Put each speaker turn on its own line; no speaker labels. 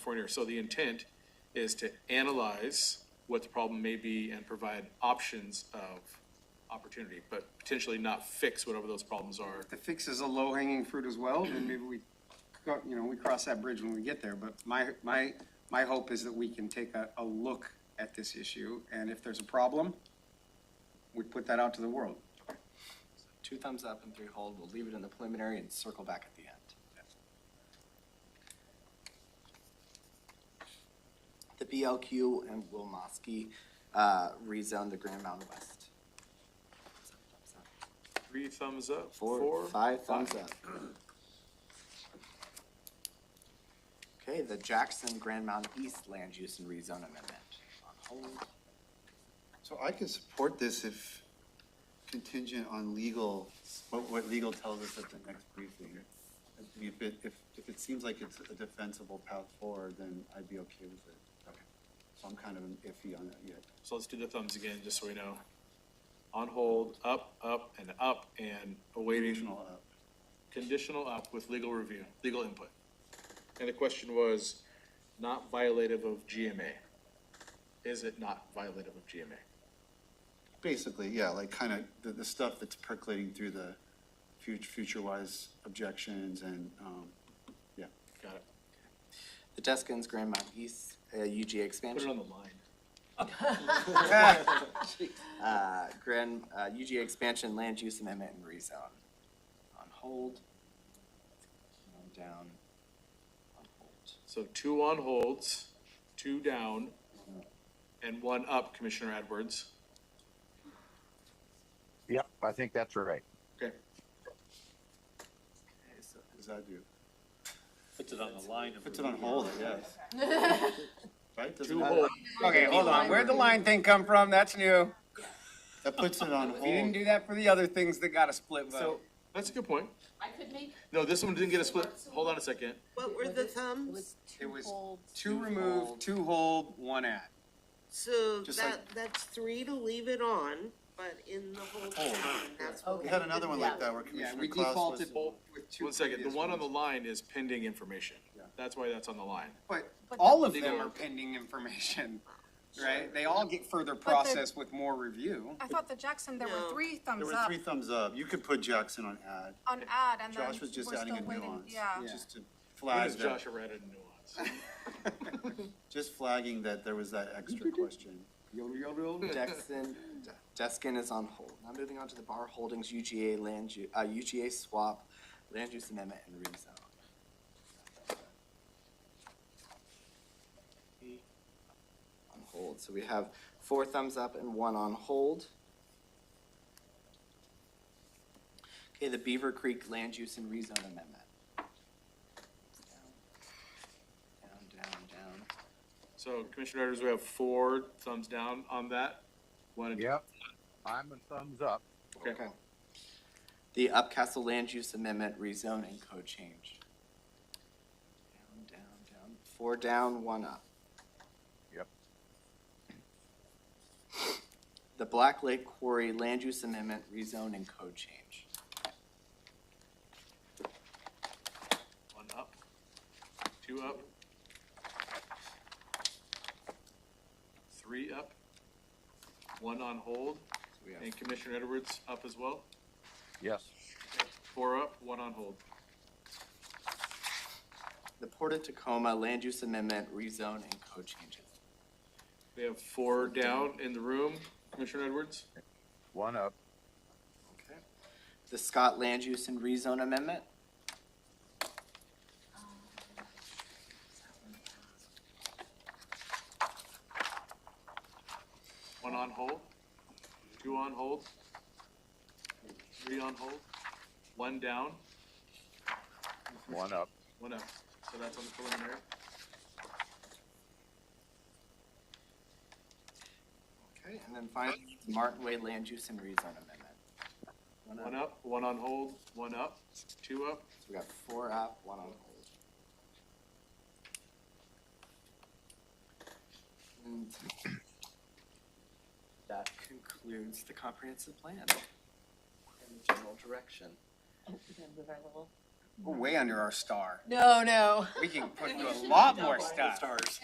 California. So the intent is to analyze what the problem may be and provide options of opportunity, but potentially not fix whatever those problems are.
the fix is a low hanging fruit as well, then maybe we, go- you know, we cross that bridge when we get there. But my, my, my hope is that we can take a, a look at this issue, and if there's a problem, we put that out to the world.
Two thumbs up and three hold. We'll leave it in the preliminary and circle back at the end. The BLQ and Will Mosky, uh, rezoned the Grand Mountain West.
Three thumbs up,
Four,
four?
five thumbs up. Okay, the Jackson Grand Mountain East Land Use and Rezone Amendment on hold.
So I can support this if contingent on legal, what, what legal tells us at the next briefing. I mean, If it, if, if it seems like it's a defensible path forward, then I'd be okay with it. Okay. So I'm kind of iffy on that yet.
So let's do the thumbs again, just so we know. On hold, up, up, and up, and awaiting
Conditional up.
conditional up with legal review, legal input. And the question was, not violative of GMA. Is it not violative of GMA?
Basically, yeah, like kind of the, the stuff that's percolating through the future, future-wise objections and, um, yeah.
Got it.
The Deskins Grand Mountain East, uh, UGA
Put
expansion.
it on the line.
uh, grand, uh, UGA expansion, land use amendment and rezone on hold. And Down, on hold.
So two on holds, two down, and one up, Commissioner Edwards.
Yep, I think that's right.
Okay,
Okay, so
What does that do?
Puts it on the line of.
Puts it on hold, I guess. Right? Doesn't
two
that-
hold,
Okay, hold on, where'd the line thing come from? That's new.
That puts it on
We didn't
hold.
do that for the other things that got a split
so,
vote.
that's a good point.
I could make.
No, this one didn't get a split, hold on a second.
What were the thumbs?
Was
It
two
was
holds.
two remove, two hold, one add.
So
Just
that, that's three to leave it on, but in the whole town, that's what.
We had another one like
Yeah.
that where
Yeah,
Commissioner
we
Klaus was.
defaulted with two.
One second, the
previous
one on the
ones.
line is pending information. That's why that's on the line.
But
But
all of
the-
them are pending information, right? They all get further processed with more review.
I thought the Jackson, there were
No.
three
There
thumbs
were
up
three thumbs up. You could put Jackson on ad,
on ad and then
Josh was just
we're
adding a
still waiting,
nuance.
yeah.
Yeah.
Just to
Where
flag
does
that,
Josh Arad in nuance?
just flagging that there was that extra question.
Yodel, yodel, yodel.
Dexon, Deskin is on hold. Now moving on to the Bar Holdings UGA land, u- uh, UGA swap, land use amendment and rezone. On hold, so we have four thumbs up and one on hold. Okay, the Beaver Creek land use and rezone amendment. Down, down, down, down.
So Commissioner Edwards, we have four thumbs down on that. One,
Yep. I'm a thumbs up.
okay,
Okay. The Upcastle Land Use Amendment Rezone and Code Change. Down, down, down, four down, one up.
Yep.
The Black Lake Quarry Land Use Amendment Rezone and Code Change.
one up, two up. Three up, one on hold,
So we have
and Commissioner Edwards up as well.
Yes.
Four up, one on hold.
The Port of Tacoma Land Use Amendment Rezone and Code Changes.
We have four down in the room. Commissioner Edwards?
One up.
Okay. The Scott Land Use and Rezone Amendment.
One on hold, two on hold, three on hold, one down,
One up.
one up. So that's on the preliminary.
Okay. And then finally, the Martin Way Land Use and Rezone Amendment.
One up, one on hold, one up, two up,
So we got four up, one on hold. And that concludes the comprehensive plan and the general direction.
We're gonna Oh, move our little
We're way under our star.
No, no.
We can put a lot more
Stars.
stuff.